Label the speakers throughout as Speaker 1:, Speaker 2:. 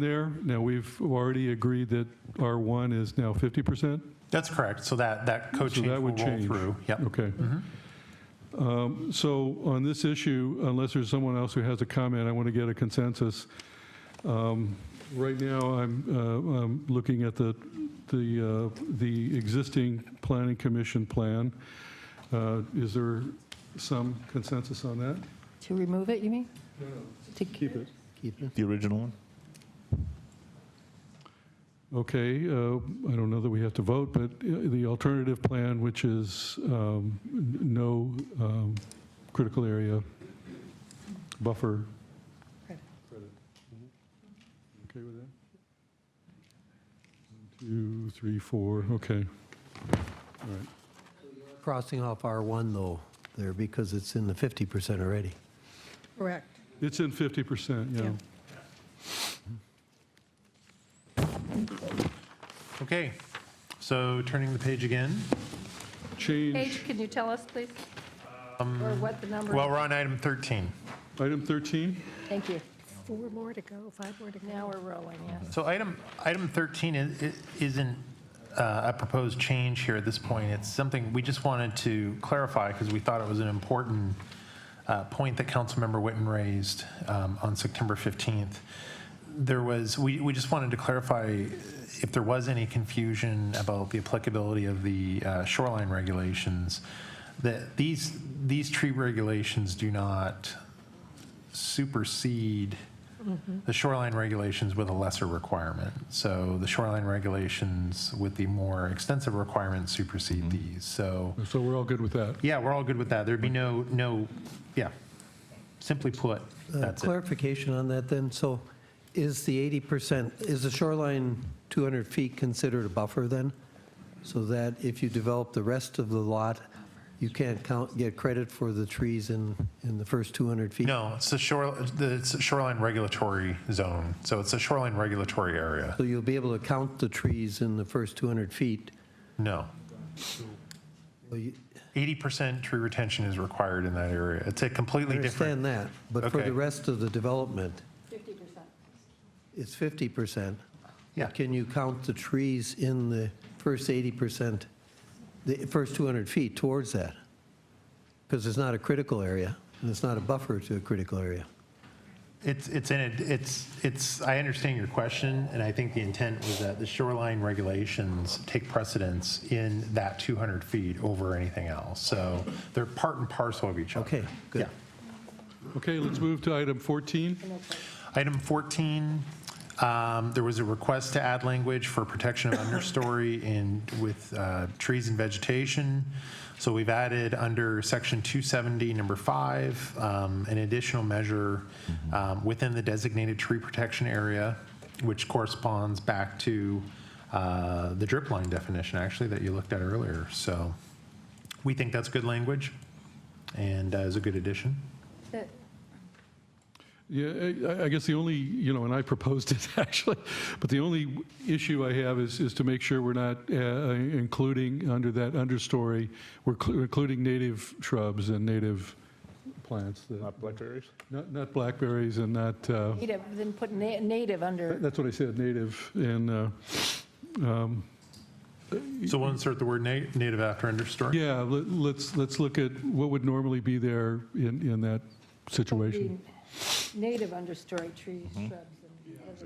Speaker 1: there. Now, we've already agreed that R1 is now 50%.
Speaker 2: That's correct. So that, that code
Speaker 1: So
Speaker 2: change
Speaker 1: that
Speaker 2: will roll
Speaker 1: would change.
Speaker 2: through. Yep.
Speaker 1: Okay. Um, So on this issue, unless there's someone else who has a comment, I want to get a consensus. Um, Right now, I'm, uh, I'm looking at the, the, uh, the existing planning commission plan. Uh, Is there some consensus on that?
Speaker 3: To remove it, you mean? To
Speaker 1: Keep it.
Speaker 4: The original one?
Speaker 1: Okay, uh, I don't know that we have to vote, but uh, the alternative plan, which is um, n- no um, critical area buffer.
Speaker 3: Credit.
Speaker 1: Mm-hmm. Okay with that? One, Two, three, four, okay. All right.
Speaker 5: Crossing off R1 though there because it's in the 50% already.
Speaker 3: Correct.
Speaker 1: It's in 50%, yeah.
Speaker 3: Yeah.
Speaker 2: Okay. So turning the page again.
Speaker 1: Change,
Speaker 3: Paige, can you tell us, please? Or what the number?
Speaker 2: Well, we're on item 13.
Speaker 1: item 13?
Speaker 3: Thank you.
Speaker 6: Four more to go, five more to go.
Speaker 3: Now we're rolling, yes.
Speaker 2: So item, item 13 is- i- isn't uh, a proposed change here at this point. It's something we just wanted to clarify because we thought it was an important uh, point that Councilmember Witten raised um, on September 15th. There was, we, we just wanted to clarify if there was any confusion about the applicability of the uh, shoreline regulations, that these, these tree regulations do not supersede the shoreline regulations with a lesser requirement. So the shoreline regulations with the more extensive requirements supersede these. So,
Speaker 1: So we're all good with that?
Speaker 2: yeah, we're all good with that. There'd be no, no, yeah. Simply put,
Speaker 5: Uh,
Speaker 2: that's it.
Speaker 5: Clarification on that then, so is the 80%, is the shoreline 200 feet considered a buffer then? So that if you develop the rest of the lot, you can't count, get credit for the trees in, in the first 200 feet?
Speaker 2: No, it's the shore, the it's a shoreline regulatory zone. So it's a shoreline regulatory area.
Speaker 5: So you'll be able to count the trees in the first 200 feet?
Speaker 2: No.
Speaker 5: Well, you-
Speaker 2: 80% tree retention is required in that area. It's a
Speaker 5: I
Speaker 2: completely different.
Speaker 5: understand that, but for
Speaker 2: Okay.
Speaker 5: the rest of the development,
Speaker 3: 50%.
Speaker 5: it's 50%.
Speaker 2: Yeah.
Speaker 5: Can you count the trees in the first 80%, the first 200 feet towards that? Because it's not a critical area, and it's not a buffer to a critical area.
Speaker 2: It's, it's in it, it's, it's, I understand your question, and I think the intent was that the shoreline regulations take precedence in that 200 feet over anything else. So they're part and parcel of each other.
Speaker 5: Okay, good.
Speaker 2: Yeah.
Speaker 1: Okay, let's move to item 14.
Speaker 2: Item 14, um, there was a request to add language for protection of understory in, with uh, trees and vegetation. So we've added under section 270, number five, um, an additional measure um, within the designated tree protection area, which corresponds back to uh, the drip line definition, actually, that you looked at earlier. So we think that's good language and uh, is a good addition.
Speaker 3: That-
Speaker 1: Yeah, I- I guess the only, you know, and I proposed it actually, but the only issue I have is, is to make sure we're not uh, including under that understory, we're cl- including native shrubs and native plants, that-
Speaker 4: Not blackberries?
Speaker 1: not, not blackberries and not, uh,
Speaker 3: Native, then put na- native under,
Speaker 1: that's what I said, native, and, uh, um,
Speaker 2: So we'll insert the word na- native after understory?
Speaker 1: yeah, let- let's, let's look at what would normally be there in, in that situation.
Speaker 3: native understory trees, shrubs.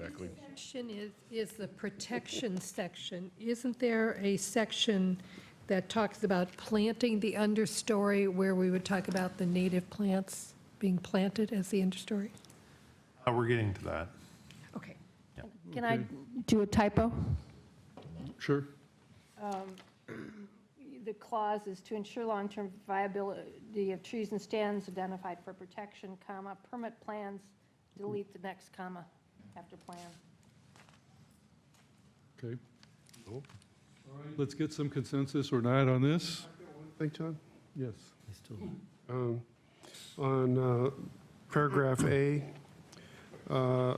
Speaker 3: and-
Speaker 6: Section is, is the protection section. Isn't there a section that talks about planting the understory where we would talk about the native plants being planted as the understory?
Speaker 2: Uh, We're getting to that.
Speaker 6: Okay.
Speaker 3: Can I do a typo?
Speaker 1: Sure?
Speaker 6: Um,
Speaker 3: The clause is to ensure long-term viability of trees and stands identified for protection, comma, permit plans, delete the next comma after plan.
Speaker 1: Okay. Let's get some consensus or not on this?
Speaker 7: Thank John.
Speaker 1: Yes.
Speaker 7: Um, On uh, paragraph A, uh,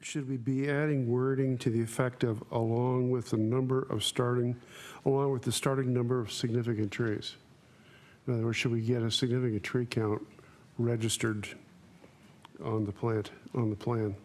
Speaker 7: should we be adding wording to the effect of along with the number of starting, along with the starting number of significant trees? In other words, should we get a significant tree count registered on the plant, on the plan.